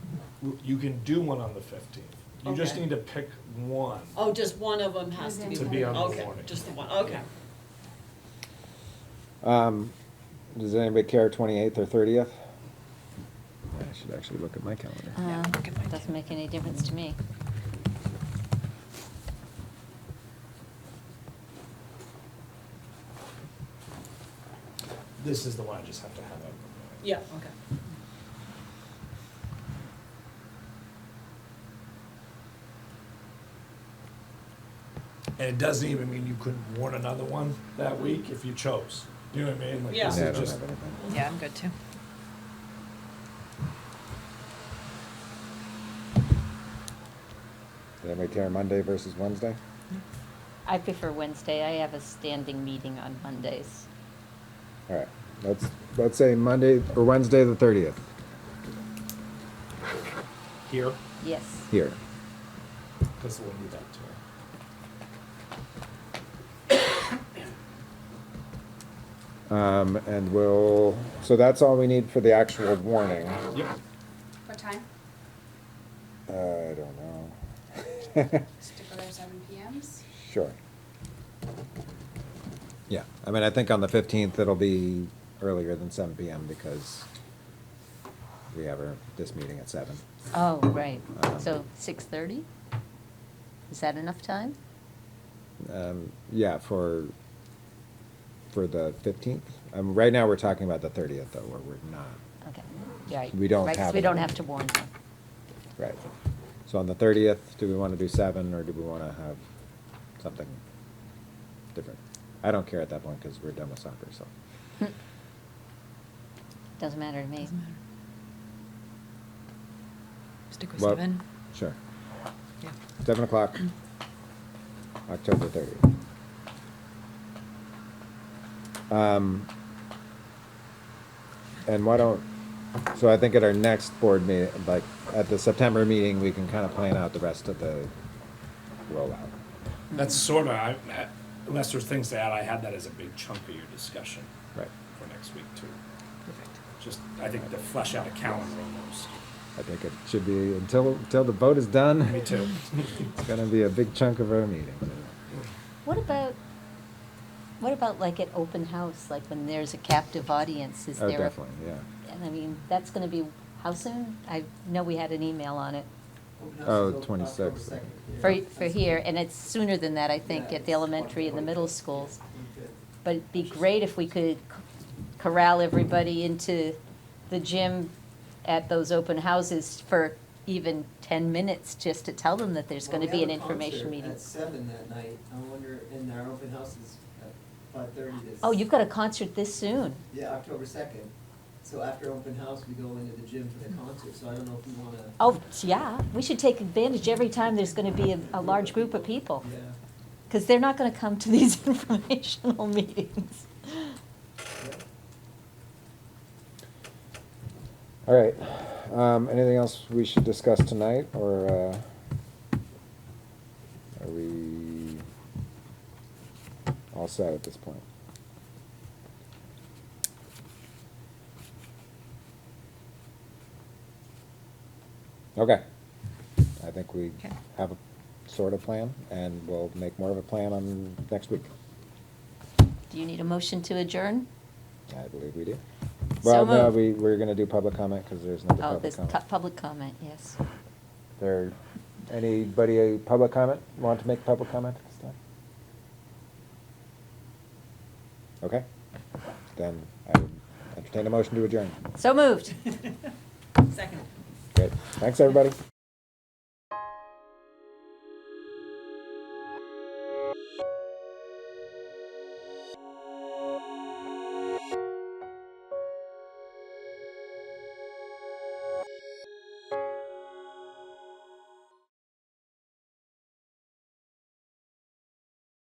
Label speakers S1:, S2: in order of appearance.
S1: you can do one on the fifteenth. You just
S2: Okay.
S1: need to pick one.
S2: Oh, just one of them has to be.
S1: To be on the
S2: okay,
S1: warning.
S2: Just the one, okay.
S3: Um, does anybody care twenty-eighth or thirtieth? I should actually look at my calendar.
S4: Uh, Doesn't make any difference to me.
S1: This is the one I just have to have out.
S2: Yeah, okay.
S1: And it doesn't even mean you couldn't warn another one that week if you chose. You know what I mean? Like,
S2: Yeah.
S1: this
S3: Yeah, I
S1: is
S3: don't
S1: just-
S3: have anything.
S5: Yeah, I'm good too.
S3: Does anybody care Monday versus Wednesday?
S4: I prefer Wednesday. I have a standing meeting on Mondays.
S3: All right, let's, let's say Monday or Wednesday the thirtieth
S1: Here,
S4: Yes.
S3: here.
S1: because we'll need that too.
S3: Um, and we'll, so that's all we need for the actual warning.
S1: Yep.
S6: What time?
S3: Uh, I don't know.
S6: Stick with our seven PMs?
S3: Sure. Yeah, I mean, I think on the fifteenth, it'll be earlier than seven PM because we have our, this meeting at seven.
S4: Oh, right.
S3: Um,
S4: So 6:30? Is that enough time?
S3: Um, yeah, for, for the fifteenth. Um, right now, we're talking about the thirtieth, though, where we're not.
S4: Okay, right.
S3: We don't
S4: Right, 'cause
S3: have
S4: we
S3: it.
S4: don't have to warn them.
S3: Right. So on the thirtieth, do we want to do seven, or do we want to have something different? I don't care at that point, because we're done with soccer, so.
S4: Doesn't matter to me.
S5: Doesn't matter. Stick with
S3: Well,
S5: seven.
S3: Sure.
S5: Yeah.
S3: Seven o'clock, October thirtieth. Um, and why don't, so I think at our next board meeting, like, at the September meeting, we can kind of plan out the rest of the rollout.
S1: That's sort of, I, I- unless there's things to add, I had that as a big chunk of your discussion
S3: Right.
S1: for next week too.
S5: Perfect.
S1: Just, I think to flesh out a calendar almost.
S3: I think it should be, until, until the vote is done.
S1: Me too.
S3: It's gonna be a big chunk of our meeting.
S4: What about, what about like at open house, like when there's a captive audience? Is
S3: Oh,
S4: there a-
S3: definitely, yeah.
S4: And I mean, that's going to be, how soon? I know we had an email on it
S3: Oh, 26th.
S4: for, for here, and it's sooner than that, I think, at the elementary and the middle schools. But it'd be great if we could c- corral everybody into the gym at those open houses for even ten minutes, just to tell them that there's gonna be an information meeting.
S7: At seven that night, I wonder, and our open house is at five thirty this.
S4: Oh, you've got a concert this soon?
S7: Yeah, October second, so after open house, we go into the gym for the concert, so I don't know if you wanna.
S4: Oh, yeah, we should take advantage every time there's gonna be a, a large group of people,
S7: Yeah,
S4: because they're not gonna come to these informational meetings.
S3: All right, um, anything else we should discuss tonight, or, uh, are we all set at this point? Okay, I think we
S5: Okay.
S3: have a sort of plan, and we'll make more of a plan on next week.
S4: Do you need a motion to adjourn?
S3: I believe we do.
S4: So
S3: Well, no,
S4: moved.
S3: we, we're gonna do public comment, because there's no
S4: Oh,
S3: public
S4: this
S3: comment.
S4: cu- public comment, yes.
S3: There, anybody, a public comment, want to make public comment at this time? Okay, then I would entertain a motion to adjourn.
S4: So moved.
S2: Second.
S3: Great, thanks, everybody.